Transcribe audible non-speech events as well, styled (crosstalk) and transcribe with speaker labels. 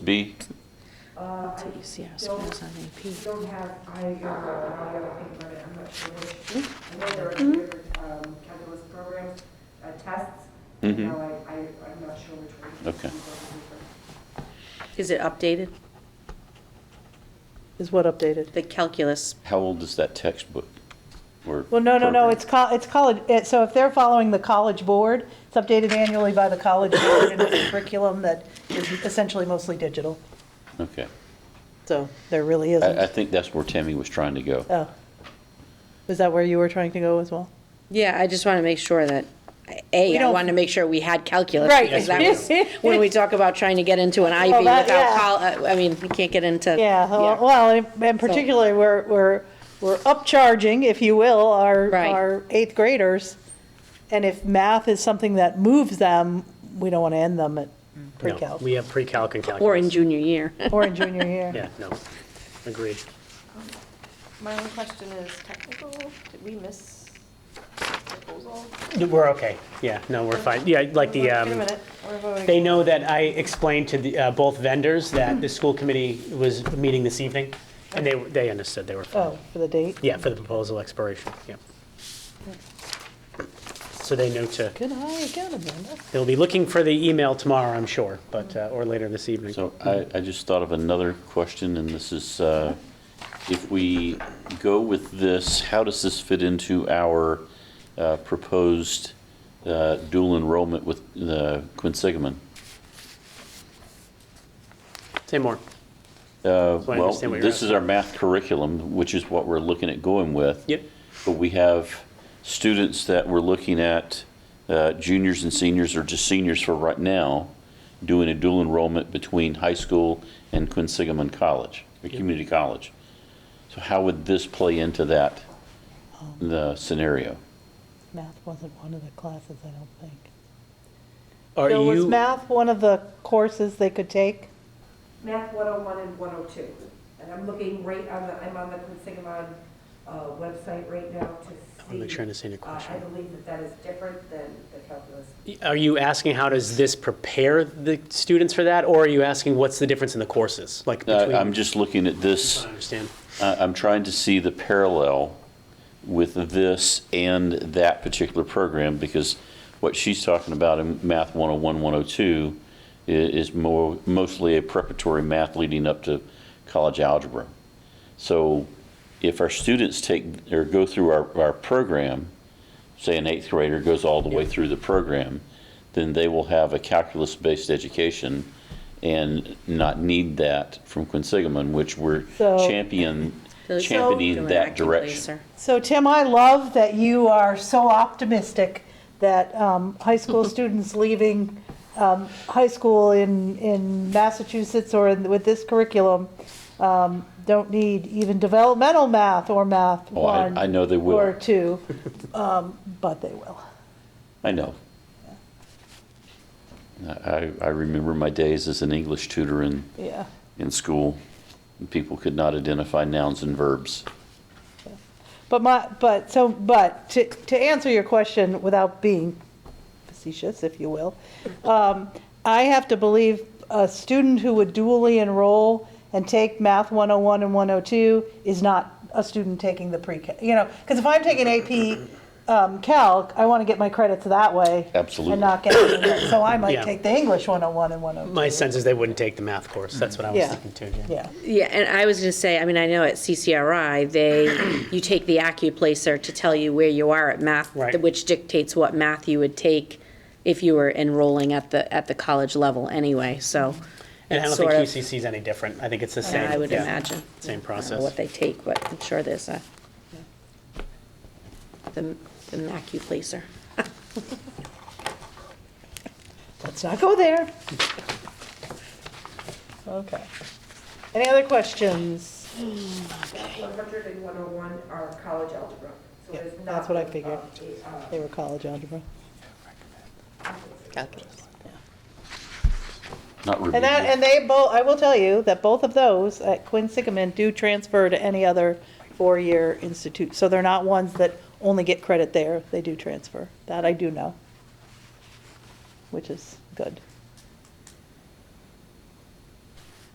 Speaker 1: B?
Speaker 2: That's what you see, I suppose, on AP.
Speaker 3: don't have, I, um, I have a paper, I'm not sure which. I know there are two different um, calculus programs, uh, tests.
Speaker 1: Mhm.
Speaker 3: Now, I, I, I'm not sure which one.
Speaker 1: Okay.
Speaker 2: Is it updated?
Speaker 4: Is what updated?
Speaker 2: The calculus,
Speaker 1: How old is that textbook? or
Speaker 4: Well, no, no, no,
Speaker 1: program?
Speaker 4: it's col, it's college, it- so if they're following the college board, it's updated annually by the college board and it's a curriculum that is essentially mostly digital.
Speaker 1: Okay.
Speaker 4: So there really
Speaker 1: I, I
Speaker 4: isn't.
Speaker 1: think that's where Tammy was trying to go.
Speaker 4: Oh. Is that where you were trying to go as well?
Speaker 2: yeah, I just want to make sure that, A,
Speaker 4: We
Speaker 2: I
Speaker 4: don't-
Speaker 2: want to make sure we had calculus.
Speaker 4: Right.
Speaker 2: Because
Speaker 4: (laughs)
Speaker 2: that was, when we talk about trying to get into an IB
Speaker 4: Well, that-
Speaker 2: without,
Speaker 4: yeah.
Speaker 2: col- uh, I mean, you can't get into.
Speaker 4: Yeah, well- Oh, well, and- and particularly we're, we're, we're upcharging, if you will, our,
Speaker 2: Right.
Speaker 4: our eighth graders. And if math is something that moves them, we don't want to end them at
Speaker 5: Mm. No,
Speaker 4: pre-calc
Speaker 5: we have pre-calc and calculus.
Speaker 2: Or in junior
Speaker 4: (laughs)
Speaker 2: year.
Speaker 4: or in junior year.
Speaker 5: (laughs) Yeah, no, agreed.
Speaker 6: My only question is technical, did we miss proposal?
Speaker 5: We're okay, yeah, no, we're fine, yeah, like the,
Speaker 6: Wait a
Speaker 5: um,
Speaker 6: minute, we're voting.
Speaker 5: they know that I explained to the, uh, both vendors that the school committee was meeting this evening, and they, they understood, they were fine.
Speaker 4: Oh, for the date?
Speaker 5: Yeah, for the proposal expiration, yeah. So they know to,
Speaker 4: Good eye, good Amanda.
Speaker 5: they'll be looking for the email tomorrow, I'm sure, but, uh, or later this evening.
Speaker 1: So I, I just thought of another question, and this is, uh, if we go with this, how does this fit into our uh, proposed uh, dual enrollment with uh, Quinn Sigmund?
Speaker 5: Say more.
Speaker 1: Uh,
Speaker 5: So I
Speaker 1: Well,
Speaker 5: understand what you're
Speaker 1: this is
Speaker 5: asking.
Speaker 1: our math curriculum, which is what we're looking at going with.
Speaker 5: Yep.
Speaker 1: But we have students that we're looking at, uh, juniors and seniors, or just seniors for right now, doing a dual enrollment between high school and Quinn Sigmund College, or community college. So how would this play into that, the scenario?
Speaker 4: Math wasn't one of the classes, I don't think.
Speaker 5: Are
Speaker 4: Bill, was
Speaker 5: you,
Speaker 4: math one of the courses they could take?
Speaker 3: Math 101 and 102. And I'm looking right on the, I'm on the Quinsigamon uh, website right now to see.
Speaker 5: I wanna make sure I understand your
Speaker 3: Uh, I
Speaker 5: question.
Speaker 3: believe that that is different than the calculus.
Speaker 5: are you asking how does this prepare the students for that, or are you asking what's the difference in the courses, like
Speaker 1: I-
Speaker 5: between?
Speaker 1: Uh, I'm just looking at this.
Speaker 5: I understand.
Speaker 1: I- I'm trying to see the parallel with this and that particular program, because what she's talking about in Math 101, 102 i- is more, mostly a preparatory math leading up to college algebra. So if our students take, or go through our, our program, say an eighth grader goes all the way through the program, then they will have a calculus-based education and not need that from Quinn Sigmund, which we're
Speaker 4: So-
Speaker 1: champion, championing that direction.
Speaker 4: So Tim, I love that you are so optimistic that um, high (laughs) school students leaving um, high school in, in Massachusetts or in, with this curriculum um, don't need even developmental math or math
Speaker 1: Oh, I-
Speaker 4: one
Speaker 1: I know they will.
Speaker 4: or two, um, but they will.
Speaker 1: I know. I, I remember my days as an English tutor in,
Speaker 4: Yeah.
Speaker 1: in school. People could not identify nouns and verbs.
Speaker 4: But my, but, so, but, to, to answer your question without being facetious, if you will, um, I have to believe a student who would dually enroll and take Math 101 and 102 is not a student taking the pre-Cal, you know, because if I'm taking AP um, Calc, I want to get my credits that way.
Speaker 1: Absolutely.
Speaker 4: And not get, so I might
Speaker 5: Yeah.
Speaker 4: take the English 101 and 102.
Speaker 5: My sense is they wouldn't take the math course. That's what I was
Speaker 4: Yeah.
Speaker 5: thinking too, Jen.
Speaker 4: Yeah,
Speaker 2: Yeah, and I was gonna say, I mean, I know at CCRI, they,
Speaker 5: (clears throat)
Speaker 2: you take the AccuPlacer to tell you where you are at math,
Speaker 5: Right.
Speaker 2: which dictates what math you would take if you were enrolling at the, at the college level anyway, so.
Speaker 5: And I don't
Speaker 2: it's
Speaker 5: think
Speaker 2: sort of-
Speaker 5: QCC is any different. I think it's the same.
Speaker 2: I would
Speaker 5: yeah,
Speaker 2: imagine.
Speaker 5: Same
Speaker 2: I don't know
Speaker 5: process.
Speaker 2: what they take, but I'm sure there's a, the, the AccuPlacer.
Speaker 4: let's not go there. Okay. Any other questions?
Speaker 3: 100 and 101 are college algebra. So
Speaker 4: Yeah,
Speaker 3: there's not.
Speaker 4: that's what I
Speaker 3: uh,
Speaker 4: figured.
Speaker 3: a, uh,
Speaker 4: They were college algebra.
Speaker 1: Not
Speaker 4: And that, and they both, I will tell you that both of those at Quinn Sigmund do transfer to any other four-year institute. So they're not ones that only get credit there, they do transfer. That I do know, which is good.